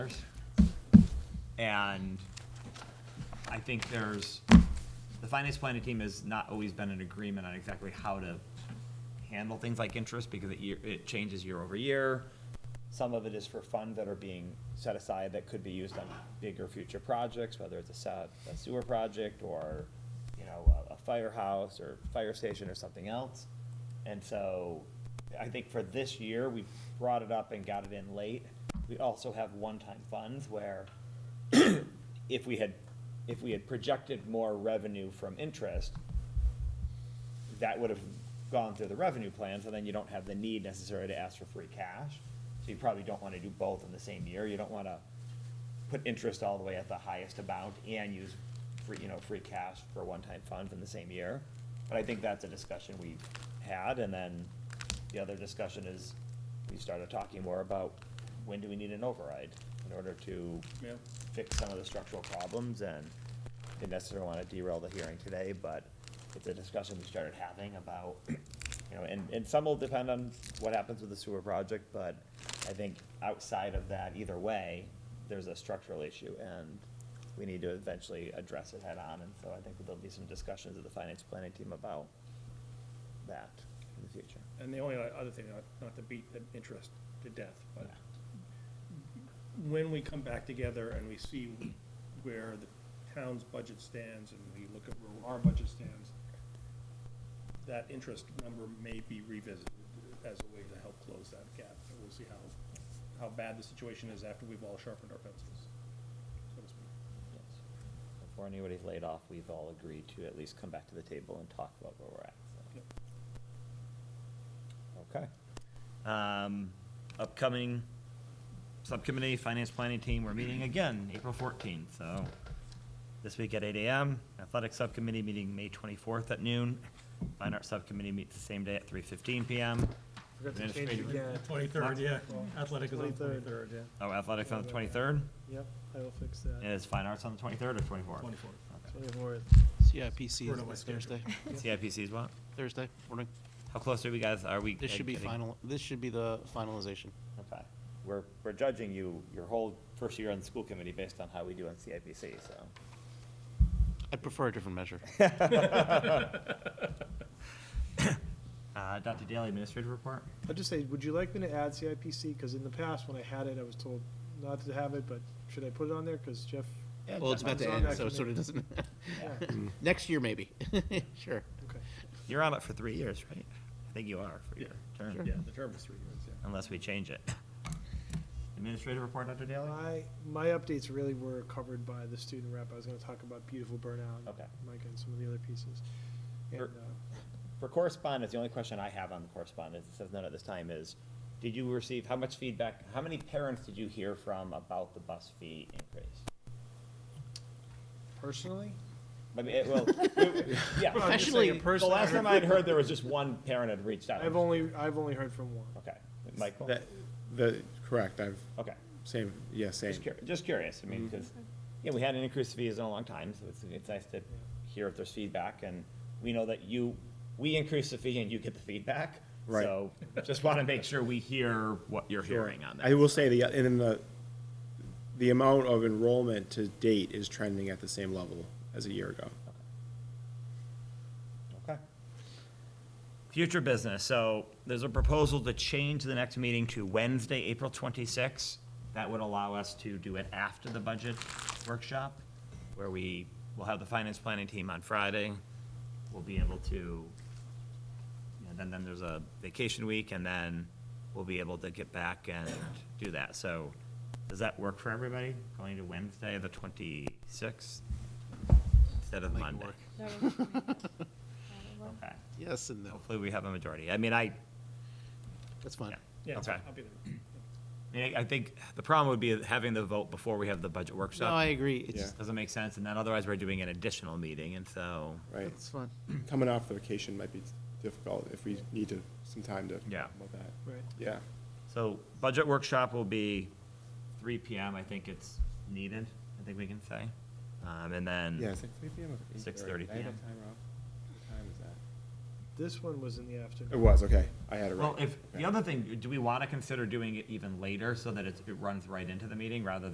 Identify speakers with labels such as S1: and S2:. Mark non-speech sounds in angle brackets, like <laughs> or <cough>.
S1: dollars. And I think there's, the finance planning team has not always been in agreement on exactly how to handle things like interest because it year, it changes year over year. Some of it is for funds that are being set aside that could be used on bigger future projects, whether it's a se- a sewer project or, you know, a- a firehouse or fire station or something else. And so I think for this year, we brought it up and got it in late. We also have one-time funds where if we had, if we had projected more revenue from interest, that would have gone through the revenue plan, so then you don't have the need necessarily to ask for free cash. So you probably don't wanna do both in the same year, you don't wanna put interest all the way at the highest amount and use free, you know, free cash for one-time funds in the same year. But I think that's a discussion we had, and then the other discussion is, we started talking more about when do we need an override in order to
S2: Yeah.
S1: fix some of the structural problems, and didn't necessarily wanna derail the hearing today, but it's a discussion we started having about, <clears throat> you know, and, and some will depend on what happens with the sewer project, but I think outside of that, either way, there's a structural issue, and we need to eventually address it head-on, and so I think there'll be some discussions with the finance planning team about that in the future.
S2: And the only other thing, not, not to beat the interest to death, but when we come back together and we see where the town's budget stands and we look at where our budget stands, that interest number may be revisited as a way to help close that gap. And we'll see how, how bad the situation is after we've all sharpened our pencils, so to speak.
S1: Yes. Before anybody's laid off, we've all agreed to at least come back to the table and talk about where we're at, so.
S2: Yep.
S1: Okay. Um, upcoming subcommittee, finance planning team, we're meeting again, April fourteenth, so this week at eight AM. Athletic subcommittee meeting May twenty-fourth at noon. Fine arts subcommittee meets the same day at three fifteen PM.
S3: Forgot to change it
S1: Administrative-
S3: again.
S2: Twenty-third, yeah.
S3: Athletic
S2: is on the
S3: yeah.
S1: Oh, athletics on the twenty-third,
S3: Yep, I will fix that.
S1: is fine arts on the twenty-third or twenty-fourth?
S2: Twenty-fourth.
S3: Twenty-fourth.
S4: CIPC
S2: Sort
S4: is
S2: of my
S4: this
S2: schedule.
S4: Thursday,
S1: <laughs> CIPC's what?
S4: Thursday morning.
S1: How close are we guys, are we?
S4: This should be
S1: getting-
S4: final, this should be the finalization.
S1: Okay. We're, we're judging you, your whole first year on the school committee based on how we do on CIPC, so.
S4: <laughs> I prefer a
S1: <laughs>
S4: different measure.
S1: Uh, Dr. Daly, administrative report?
S3: I'll just say, would you like me to add CIPC? Because in the past, when I had it, I was told not to have it, but should I put it on there? Because Jeff,
S4: Well, it's about to
S3: It's on
S4: end,
S3: that
S4: so it sort of doesn't,
S3: yeah,
S4: <laughs> next year maybe, sure.
S3: okay.
S1: You're on it for three years, right? I think you are for your
S2: Yeah,
S1: term. Um,
S2: Yeah, the term is three years, yeah.
S1: Unless we change it. Administrative report, Dr. Daly?
S3: My, my updates really were covered by the student rep. I was gonna talk about beautiful burnout.
S1: Okay.
S3: Mike and some of the other pieces. And,
S1: Er-
S3: uh,
S1: For correspondence, the only question I have on the correspondence, it says none at this time, is did you receive, how much feedback, how many parents did you hear from about the bus fee increase?
S3: personally,
S1: I mean, it, well, yeah.
S3: Well, I'm just saying
S4: Professionally-
S3: it
S1: The
S3: personally,
S1: last time
S3: I
S1: I'd heard, there was just one parent had reached out.
S3: I've only, I've only heard from one.
S1: Okay, Michael?
S5: That, the, correct, I've,
S1: Okay,
S5: same, yeah, same.
S1: just curious, just curious, I mean,
S3: Mm-hmm.
S1: because, yeah, we had an increase in fees in a long time, so it's, it's nice to hear if there's feedback, and we know that you, we increase the fee and you get the feedback.
S5: Right.
S1: So, just want to make sure we hear what you're hearing on that.
S5: I will say the, and then the, the amount of enrollment to date is trending at the same level as a year ago.
S1: Okay. Future business, so there's a proposal to change the next meeting to Wednesday, April twenty-sixth. That would allow us to do it after the budget workshop, where we will have the finance planning team on Friday. We'll be able to, you know, then, then there's a vacation week, and then we'll be able to get back and do that. So, does that work for everybody, going to Wednesday, the twenty-sixth, instead of
S4: Make it
S1: Monday?
S4: work.
S6: That works for me. That would work.
S1: Okay.
S4: Yes and no,
S1: Hopefully, we have a majority. I mean, I,
S4: that's fine.
S1: yeah,
S2: Yeah,
S1: okay.
S2: I'll be there.
S1: I mean, I- I think the problem would be having the vote before we have the budget
S4: No, I
S1: workshop.
S4: agree, it's,
S5: Yeah.
S1: Doesn't make sense, and then otherwise, we're doing an additional meeting, and so,
S5: Right,
S4: it's fun.
S5: coming off the vacation might be difficult if we need to, some time to.
S1: Yeah.
S5: About that,
S3: Right.
S5: yeah.
S1: so budget workshop will be three PM, I think it's needed, I think we can say. Um, and
S5: Yeah,
S1: then,
S5: it's like three PM or eight thirty?
S1: 6:30
S5: Did I have
S1: PM.
S5: that time wrong? What time is that?
S3: This one was in the afternoon.
S5: It was, okay, I had it right.
S1: well, if, the
S5: Okay.
S1: other thing, do we want to consider doing it even later, so that it's, it runs right into the meeting, rather than